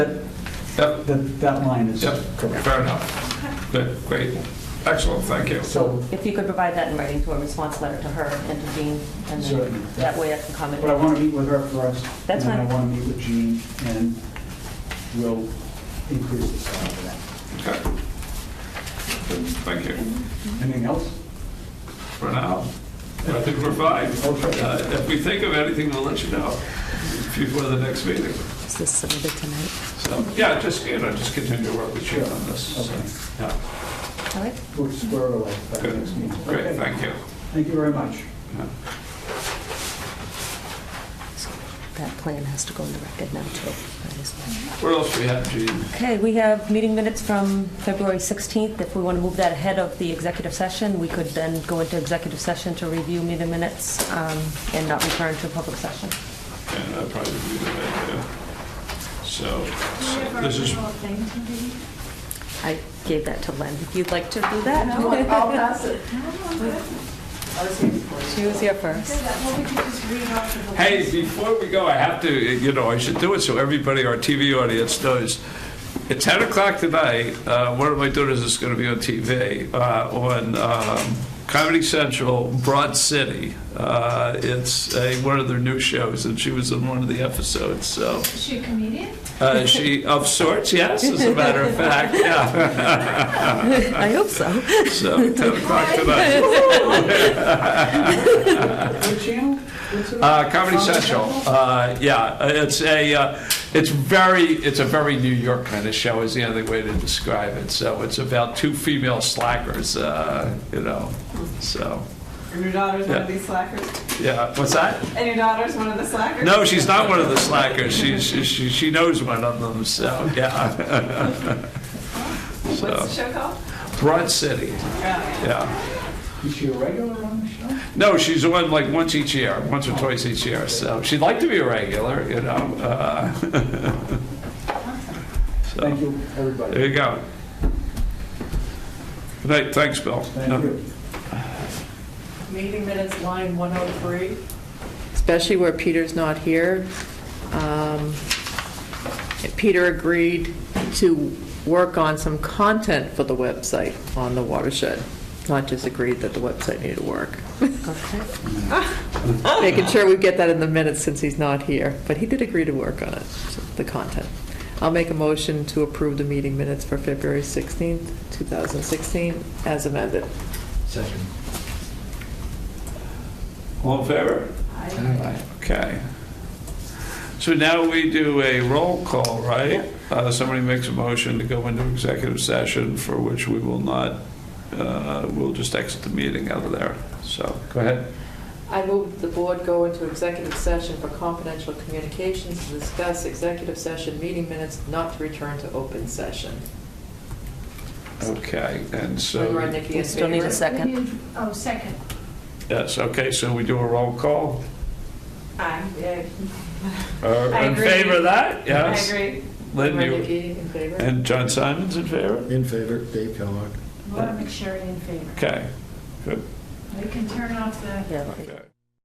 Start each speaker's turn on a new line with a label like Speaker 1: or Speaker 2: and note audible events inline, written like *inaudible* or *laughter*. Speaker 1: Yep.
Speaker 2: That, that line is
Speaker 1: Yep,
Speaker 2: correct.
Speaker 1: fair enough. Good, great, excellent, thank you.
Speaker 2: So
Speaker 3: If you could provide that in writing to a response letter to her and to Jean, and
Speaker 2: Certainly.
Speaker 3: then that way I can comment.
Speaker 2: But I want to meet with her first.
Speaker 3: That's
Speaker 2: And
Speaker 3: fine.
Speaker 2: then I want to meet with Jean, and we'll increase the salary for that.
Speaker 3: Mm-hmm.
Speaker 1: Okay. Good, Thank you.
Speaker 2: Anything else?
Speaker 1: For now, I think we're fine. Uh, If we think of anything, we'll let you know before the next meeting.
Speaker 4: Is this submitted tonight?
Speaker 1: So, yeah, just, you know, just continue to work with you on this. So,
Speaker 2: Okay.
Speaker 1: yeah.
Speaker 3: All right?
Speaker 2: We'll square it away by the
Speaker 1: Good.
Speaker 2: next meeting.
Speaker 1: Great,
Speaker 2: Okay.
Speaker 1: thank you.
Speaker 2: Thank you very much.
Speaker 1: Yeah.
Speaker 4: So That plan has to go in the record now, too. That is-
Speaker 1: What else we have, Gene?
Speaker 3: Okay, we have meeting minutes from February 16th. If we want to move that ahead of the executive session, we could then go into executive session to review meeting minutes um, and not return to public session.
Speaker 1: And I probably do that, yeah. So, so this is,
Speaker 5: I'll
Speaker 4: I gave that to Len. If you'd like to do that?
Speaker 5: *laughs* pass it.
Speaker 4: She was here first.
Speaker 1: hey, before we go, I have to, you know, I should do it so everybody, our TV audience knows. At 10 o'clock tonight, uh, one of my daughters is going to be on TV, uh, on um, Comedy Central, Broad City. Uh, It's a- one of their new shows, and she was in one of the episodes, so.
Speaker 5: Is she a comedian?
Speaker 1: Uh, She, of sorts, yes, as a matter of fact, yeah. *laughs*
Speaker 4: I hope so.
Speaker 1: So, 10 o'clock tonight.
Speaker 2: What channel? What's it on?
Speaker 1: Uh, Comedy Central, uh, yeah, it's a, uh, it's very, it's a very New York kind of show is the only way to describe it. So it's about two female slackers, uh, you know, so,
Speaker 6: And your daughter's one of
Speaker 1: Yeah.
Speaker 6: these slackers?
Speaker 1: yeah, what's that?
Speaker 6: And your daughter's one of the slackers?
Speaker 1: No, she's not one of the slackers, she, she, she she knows one of them, so, yeah. *laughs*
Speaker 6: What's the show called?
Speaker 1: Broad City,
Speaker 6: Oh, yeah.
Speaker 1: yeah.
Speaker 2: Is she a regular on the show?
Speaker 1: No, she's on like once each year, once or twice each year, so she'd like to be a regular, you know, uh, *laughs* so.
Speaker 2: Thank you, everybody.
Speaker 1: There you go. Good night, thanks, Bill.
Speaker 2: Thank you.
Speaker 7: Meeting minutes, line 103.
Speaker 8: especially where Peter's not here. Um, Peter agreed to work on some content for the website on the watershed, not just agreed that the website needed work.
Speaker 4: Okay.
Speaker 8: *laughs* Making sure we get that in the minutes since he's not here, but he did agree to work on it, the content. I'll make a motion to approve the meeting minutes for February 16th, 2016, as amended.
Speaker 1: All in favor? Aye. Okay. So now we do a roll call, right? Uh, Somebody makes a motion to go into executive session for which we will not, uh, we'll just exit the meeting out of there. So, go ahead.
Speaker 8: I move the board go into executive session for confidential communications to discuss executive session meeting minutes, not to return to open session.
Speaker 1: Okay, and
Speaker 8: Remember,
Speaker 1: so,
Speaker 8: Nikki, in
Speaker 4: Still need a
Speaker 8: favor?
Speaker 4: second.
Speaker 5: Oh, second.
Speaker 1: yes, okay, so we do a roll call.
Speaker 6: Aye. Yay.
Speaker 1: Uh,
Speaker 6: I
Speaker 1: In
Speaker 6: agree.
Speaker 1: favor of that?
Speaker 6: I
Speaker 1: Yes.
Speaker 6: agree.
Speaker 1: Lynn,
Speaker 8: Remember,
Speaker 1: you,
Speaker 8: Nikki, in favor?
Speaker 1: and John Simon's in favor?
Speaker 9: In favor, Dave Kellogg.
Speaker 5: Laura McSherry in favor.
Speaker 1: Okay, good.
Speaker 5: We can turn off the
Speaker 4: Yeah.
Speaker 1: Okay.